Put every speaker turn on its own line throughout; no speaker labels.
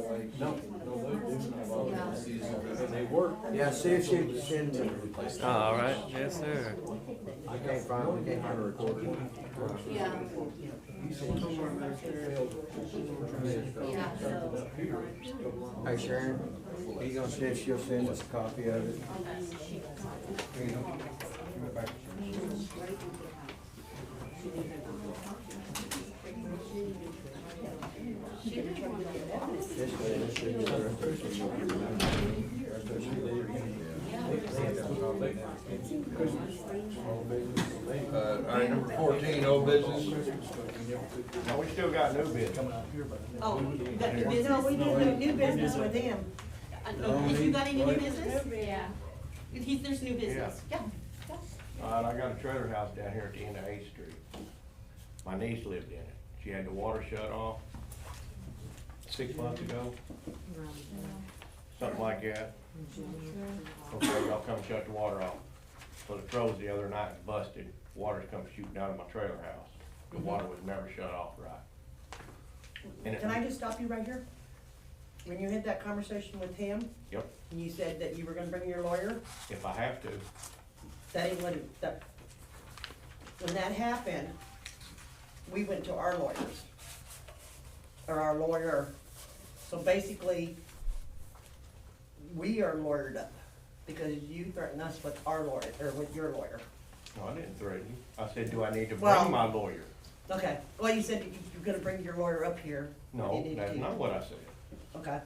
No, no, they're doing it all the season, and they work.
Yeah, see if she sends it.
Oh, all right, yes, sir.
I can't find, we can't find a recorder.
Yeah, yeah, so,
Hey Sharon, you gonna see if she'll send us a copy of it?
she didn't want to get out.
This way, this should be
Uh, all right, number fourteen, old business.
We still got new bids.
Oh, you got new business? Uh, No, we did no new business with him. If you got any new business?
Yeah.
He's, there's new business. Yeah.
Uh, I got a trailer house down here at the end of Eighth Street. My niece lived in it. She had the water shut off six months ago. Something like that. Okay, y'all come shut the water off. So the trolls the other night was busted, water's come shooting out of my trailer house. The water was never shut off right. And
Can I
it,
just stop you right here? When you had that conversation with him,
yep,
and you said that you were gonna bring your lawyer,
if I have to,
that ain't what, it- that, when that happened, we went to our lawyers. Or our lawyer, so basically, we are lawyered up, because you threatened us with our lawyer, or with your lawyer.
no, I didn't threaten you. I said, do I need to
Well-
bring my lawyer?
Okay, well, you said you- you're gonna bring your lawyer up here. when you
No,
need
that's
to.
not what I said.
Okay,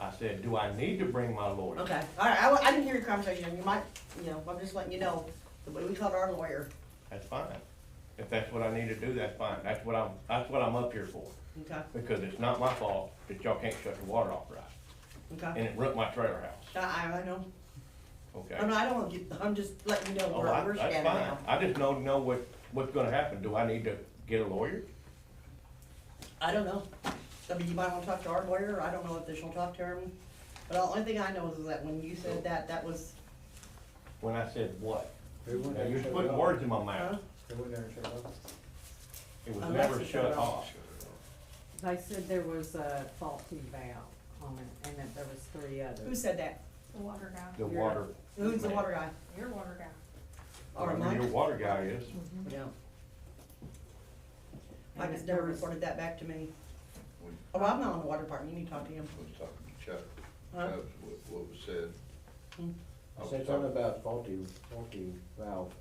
I said, do I need to bring my lawyer?
okay, all right, I, wa- I didn't hear your conversation, you might, you know, I'm just letting you know, that we called our lawyer,
That's fine. If that's what I need to do, that's fine. That's what I'm, that's what I'm up here for.
okay,
Because it's not my fault that y'all can't shut the water off right. And
okay?
it ruined my trailer house,
I, I know,
okay?
I know, I don't wanna get, Uh, I'm just letting you know
Oh,
where
I-
we're
That's
standing
fine.
now.
I just don't know what, what's gonna happen. Do I need to get a lawyer?
I don't know, I mean, you might wanna talk to our lawyer, I don't know if this will talk to him, but the only thing I know is that when you said that, that was,
When I said what?
They went
Now,
there
you're
and shut it
putting
off.
words in my
huh? Oh,
mouth.
They went there and shut it off.
It was
Unless
never
you shut it
shut
off.
off.
They said there was a faulty valve on it, and that there was three
Who
others.
said that?
The water guy,
The water.
Who's the water guy?
your water guy.
Or
Whoever
Mike?
Your water guy is.
Yeah. I
And
just
there
never
was-
reported that back to me.
We
Oh, I'm not on the water department, you need to talk to him.
was talking to Chuck,
Huh?
That was what, what was said.
Hmm.
Oh,
I
I
was
said something
talking-
about faulty, faulty valve.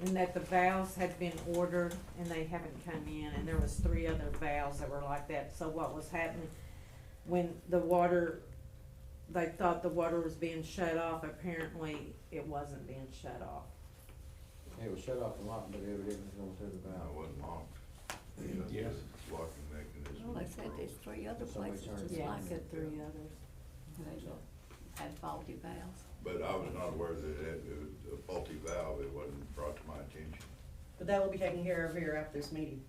And that the valves had been ordered, and they haven't come in, and there was three other valves that were like that. So what was happening, when the water, they thought the water was being shut off, apparently it wasn't being shut off.
It was shut off a lot, but it was going through the
I
valve.
wasn't on.
Yes.
Locking mechanism.
Well, they said there's three other
Somebody
places
turned
just
Yeah, I
like
said
it,
three others.
they had faulty valves.
But I was not aware that it, it was a faulty valve, it wasn't brought to my attention.
But that will be taken care of here after this meeting.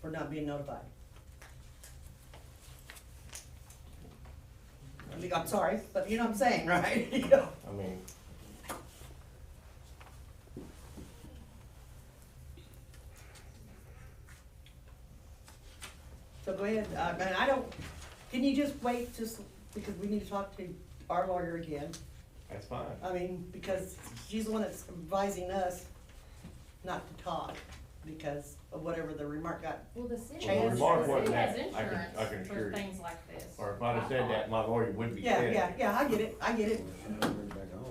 For not being notified. I mean, I'm sorry, but you know what I'm saying, right? You know.
I mean.
So go ahead, uh, man, I don't, can you just wait just, because we need to talk to our lawyer again.
That's fine.
I mean, because she's the one that's advising us not to talk because of whatever the remark got.
Well, the city
Well, the
has,
remark
the city
wasn't
has
that. I can- I can
insurance
assure
for
you.
things like this.
Or if I'd have said that, my lawyer would be
Yeah,
dead.
yeah, yeah, I get it, I get it.
I
I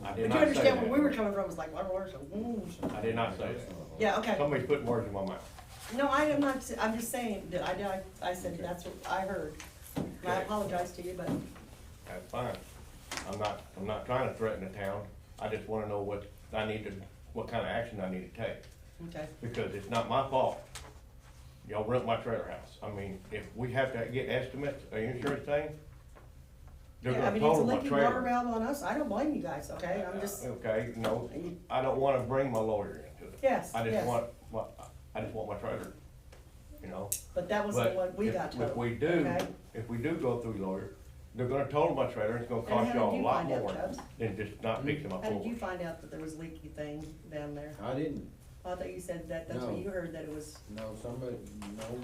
But
did
you
not say
understand where we were
that.
coming from, it's like, our lawyer's like, ooh.
I did not say that.
Yeah, okay.
Somebody's putting words in my mouth.
No, I am not, I'm just saying that I, did- I said that's what I heard. And I
Okay.
apologize to you, but,
That's fine. I'm not, I'm not trying to threaten the town. I just wanna know what I need to, what kind of action I need to take,
okay.
because it's not my fault. Y'all rent my trailer house. I mean, if we have to get estimates, an insurance thing, they're
Yeah, I
gonna
mean, it's a
total my
leaking water
trailer.
valve on us, I don't blame you guys, okay? I'm just,
Okay, no, I don't wanna bring my lawyer into it.
Yes,
I just
yes.
want, my I just want my trailer, you know?
but that was the
But
one we
if-
got to.
If we do,
okay?
if we do go through lawyer, they're gonna total my trailer, it's gonna
how
cost
did
y'all a
you
lot
find out,
more
Chubbs?
than just not fixing my
How did
floor.
you find out that there was leaky thing down there?
I didn't,
I thought you said that, that's what
No.
you heard, that it was,
no, somebody, no,